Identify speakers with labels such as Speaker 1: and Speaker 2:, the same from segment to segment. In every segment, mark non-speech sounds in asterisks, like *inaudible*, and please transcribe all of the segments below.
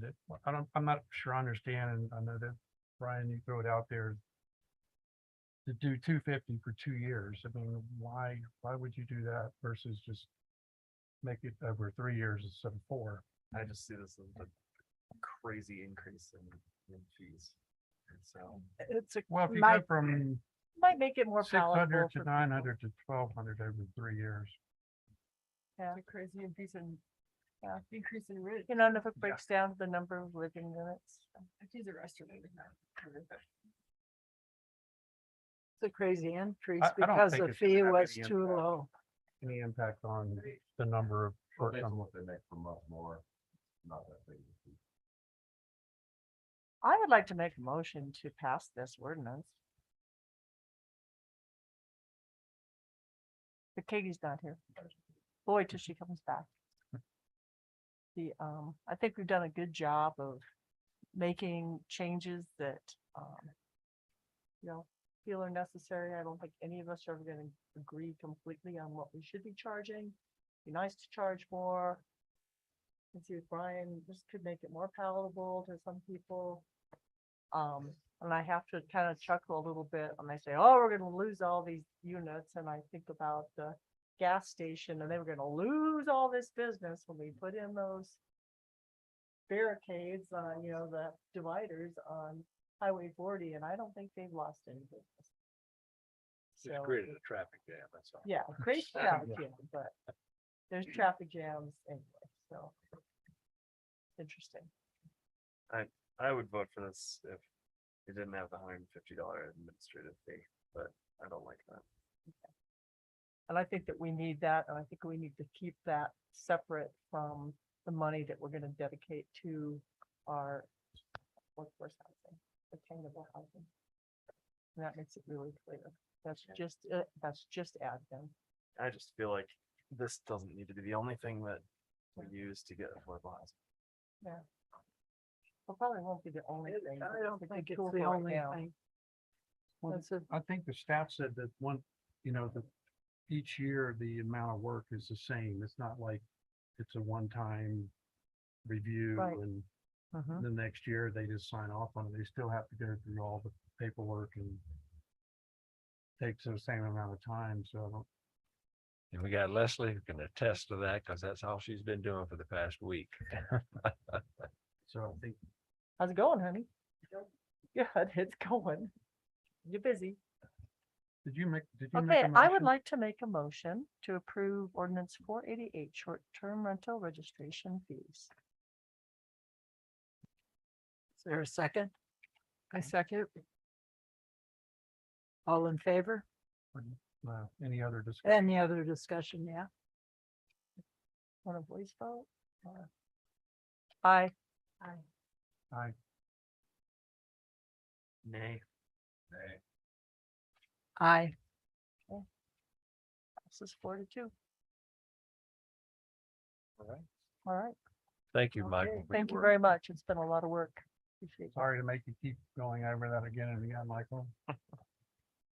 Speaker 1: that, I don't, I'm not sure I understand, and I know that, Brian, you throw it out there. To do two fifty for two years, I mean, why, why would you do that versus just make it over three years instead of four?
Speaker 2: I just see this as a crazy increase in, in fees. And so,
Speaker 3: It's a,
Speaker 1: Well, if you go
Speaker 3: might,
Speaker 1: from
Speaker 3: might make it more
Speaker 1: six hundred to
Speaker 3: palatable.
Speaker 1: nine hundred to twelve hundred over three years.
Speaker 3: It's
Speaker 4: crazy increase in, increase in rent.
Speaker 3: You know, and if it
Speaker 1: Yeah.
Speaker 3: breaks down to the number of living units,
Speaker 4: She's a restaurant.
Speaker 5: It's a crazy increase
Speaker 1: I don't
Speaker 5: because
Speaker 1: think
Speaker 5: the
Speaker 1: it's
Speaker 5: fee
Speaker 1: gonna have
Speaker 5: was
Speaker 1: any
Speaker 5: too
Speaker 1: impact.
Speaker 5: low.
Speaker 1: Any impact on the number of short-term
Speaker 2: the next month more, not that big.
Speaker 3: I would like to make a motion to pass this ordinance. But Katie's not here. Lloyd till she comes back. The, um, I think we've done a good job of making changes that, um, you know, feel are necessary. I don't think any of us are ever gonna agree completely on what we should be charging. Be nice to charge more. And see if Brian, this could make it more palatable to some people. Um, and I have to kind of chuckle a little bit when they say, oh, we're gonna lose all these units, and I think about the gas station, and they were gonna lose all this business when we put in those barricades on, you know, the dividers on Highway forty, and I don't think they've lost any business. So,
Speaker 2: created a traffic jam, that's all.
Speaker 5: *laughs*
Speaker 3: yeah, great traffic jam, but there's traffic jams anyway, so. Interesting.
Speaker 2: I would vote for this if it didn't have the hundred and fifty dollar administrative fee, but I don't like that.
Speaker 3: And I think that we need that, and I think we need to keep that separate from the money that we're gonna dedicate to our workforce housing, attainable housing. And that makes it really clear. That's just, uh, that's just admin.
Speaker 2: I just feel like this doesn't need to be the only thing that we use to get affordable housing.
Speaker 3: It probably won't be the only thing. but
Speaker 5: I don't
Speaker 3: a
Speaker 5: think it's
Speaker 3: tool
Speaker 5: the
Speaker 3: for right
Speaker 5: only
Speaker 3: now.
Speaker 5: thing.
Speaker 1: Well,
Speaker 5: That's a-
Speaker 1: I think the staff said that one, you know, that each year the amount of work is the same. It's not like it's a one-time review
Speaker 3: Right.
Speaker 1: and the next year they just sign off on it. They still have to go through all the paperwork and takes the same amount of time, so I don't
Speaker 6: And we got Leslie who can attest to that because that's all she's been doing for the past week.
Speaker 1: So I think
Speaker 3: How's it going, honey? Good, *laughs* it's going. You're busy.
Speaker 1: Did you make, did you make
Speaker 3: Okay,
Speaker 1: a
Speaker 3: I would
Speaker 1: motion?
Speaker 3: like to make a motion to approve ordinance four eighty-eight, short-term rental registration fees.
Speaker 5: Is there a second? I second. All in favor?
Speaker 1: Wow, uh, Any other discussion?
Speaker 5: Any other discussion? Yeah.
Speaker 3: Want a voice vote? or- Aye. Aye.
Speaker 1: I,
Speaker 2: Nay.
Speaker 5: Aye.
Speaker 3: This is four to two.
Speaker 2: All right.
Speaker 3: All right.
Speaker 6: Thank you, Michael.
Speaker 3: Okay, Thank you very much. It's been a lot of work. Appreciate *laughs* it.
Speaker 1: sorry to make you keep going over that again and again, Michael.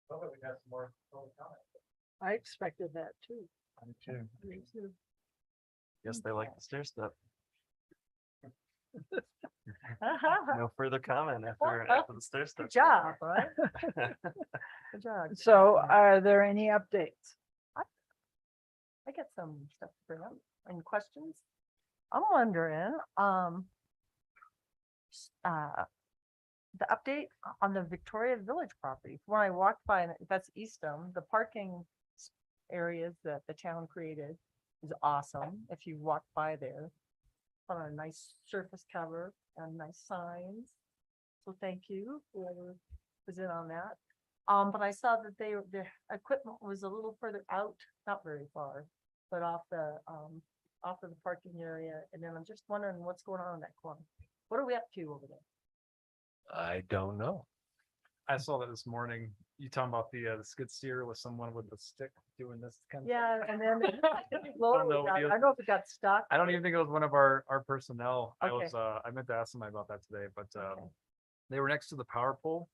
Speaker 1: Well, we got some more public comment.
Speaker 5: I expected that too.
Speaker 1: Me too.
Speaker 2: Guess they like the stair step.
Speaker 3: Good
Speaker 2: No further comment after, after the stair step.
Speaker 3: job, right?
Speaker 2: *laughs*
Speaker 3: Good job.
Speaker 5: So are there any updates?
Speaker 3: I get some stuff to bring up and questions. I'm wondering, um. s- uh, The update on the Victoria Village property, when I walked by, and that's Eastham, the parking. s- Areas that the town created is awesome, if you walk by there. On a nice surface cover and nice signs. So thank you, whoever was in on that. Um, but I saw that they, the equipment was a little further out, not very far, but off the, um, off of the parking area. And then I'm just wondering what's going on in that corner. What are we up to over there?
Speaker 6: I don't know.
Speaker 2: I saw that this morning. You talking about the, uh, the skid steer with someone with a stick doing this kind of?
Speaker 3: Yeah, and then it looked like the loader
Speaker 2: know
Speaker 3: was
Speaker 2: what
Speaker 3: out. I
Speaker 2: deal-
Speaker 3: don't know if it got stuck.
Speaker 2: I don't even think it was one of our, our personnel. I
Speaker 3: Okay.
Speaker 2: was, uh, I meant to ask somebody about that today, but, um,
Speaker 3: Okay.
Speaker 2: they were next to the power pole.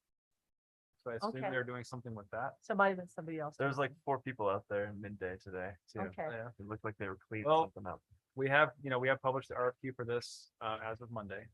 Speaker 2: So I assume
Speaker 3: Okay.
Speaker 2: they were doing something with that.
Speaker 3: So it might have been somebody else.
Speaker 7: There was like four people out there midday today too.
Speaker 3: Okay.
Speaker 2: Yeah.
Speaker 7: It looked like they were cleaning
Speaker 2: Well,
Speaker 7: something up.
Speaker 2: We have, you know, we have published the RFQ for this, uh, as of Monday.